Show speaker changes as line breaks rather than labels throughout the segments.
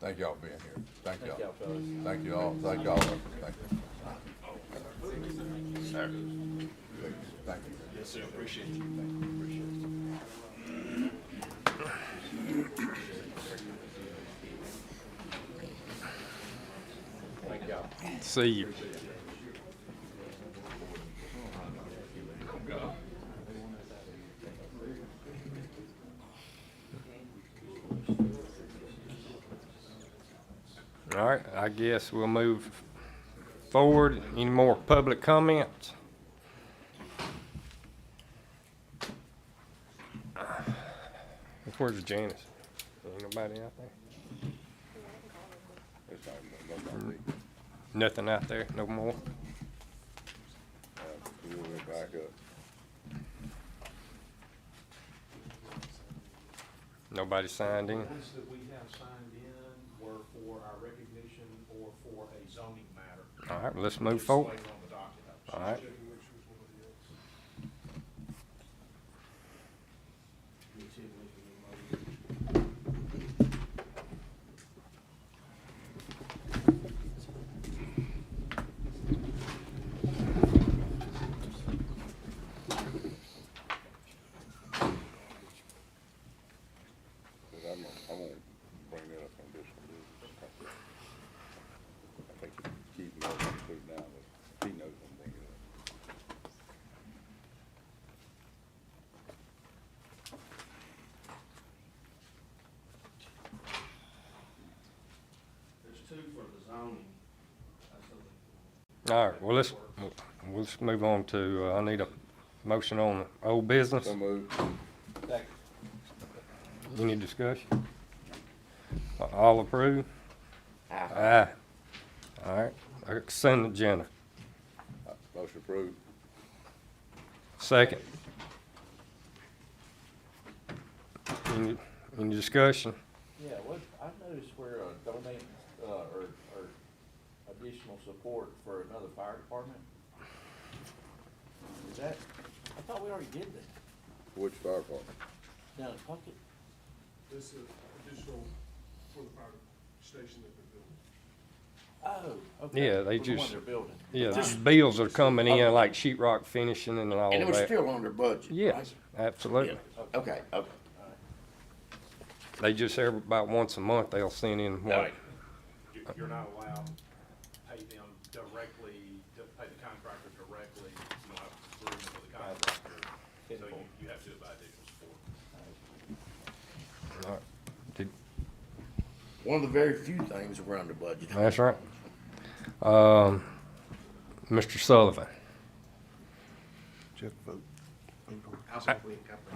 Thank y'all for being here. Thank
Thank
y'all.
y'all, fellas.
Thank you all. Thank y'all. Thank you.
Sir.
Thank you. Thank you.
Yes, sir, appreciate you.
Thank you. Appreciate it.
Thank y'all.
See you. All right, I guess we'll move forward. Any more public comments? Where's Janice? Ain't nobody out there?
It's all good. No problem.
Nothing out there, no more?
Uh, We'll be back up.
Nobody signed in?
Ones that we have signed in were for our recognition or for a zoning matter.
All right, well, let's move
Just
forward.
later on the docket.
All right.
Cause I'm, gonna- I'm gonna bring that up on this one. this is- I think Keith knows I'm gonna put it down, but he knows I'm bringing it up.
There's two for the zoning. That's the-
All right, well, let's, we'll just move on to, uh, I need a motion on old business.
So moved.
Any discussion? All approve? Aye. All right, consent agenda.
Uh, Motion approved.
Second. Any, any discussion?
Yeah, what, I noticed where uh donate, uh, or, or additional support for another fire department. Is that, I thought we already did that
Which fire department?
down in Puckett.
This is additional for the fire station that they're building.
Oh, okay.
Yeah, they
For the one
just-
they're building.
Yeah, bills are coming in, like sheetrock finishing and all
And it was
that.
still under budget, right?
Yes, absolutely.
Yeah. Okay, okay.
They just, every, about once a month, they'll send in
All
what,
right.
You- You're not allowed to pay them directly, to pay the contractor directly, you don't have agreement with the contractor, so you, you have to do it by additional support.
One of the very few things that were under budget.
That's right. Um, Mr. Sullivan.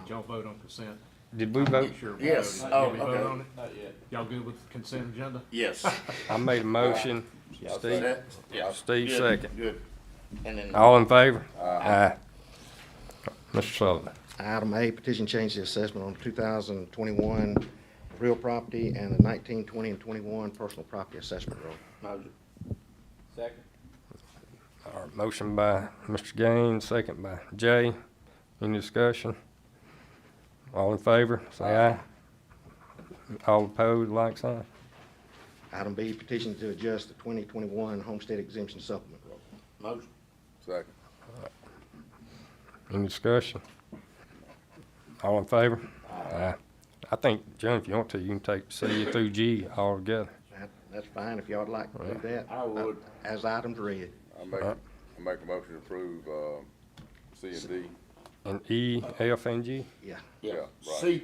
Y'all vote on consent?
Did we vote?
Sure. we
Yes,
voted.
oh,
Did we vote
okay.
on it?
Not yet.
Y'all good with consent agenda?
Yes.
I made a motion. Steve,
That- yeah.
Steve
Good,
second.
Good. And then.
all in favor? Aye. Mr. Sullivan.
Item A, petition change the assessment on 2021 real property and the 19, 20, and 21 personal property assessment roll.
Motion.
Second?
All right, motion by Mr. Gaines, second by Jay. Any discussion? All in favor, say aye. All opposed, like sign.
Item B, petition to adjust the 2021 homestead exemption supplement roll.
Motion.
Second.
Any discussion? All in favor? Aye. I think, John, if you want to, you can take C through G all together.
That- That's fine if y'all would like to do that.
I would.
As items read.
I make,
Uh-huh.
Alright.
I make a motion to approve, um, C and D.
And E, F, and G?
Yeah.
Yeah.
Yeah, right.
C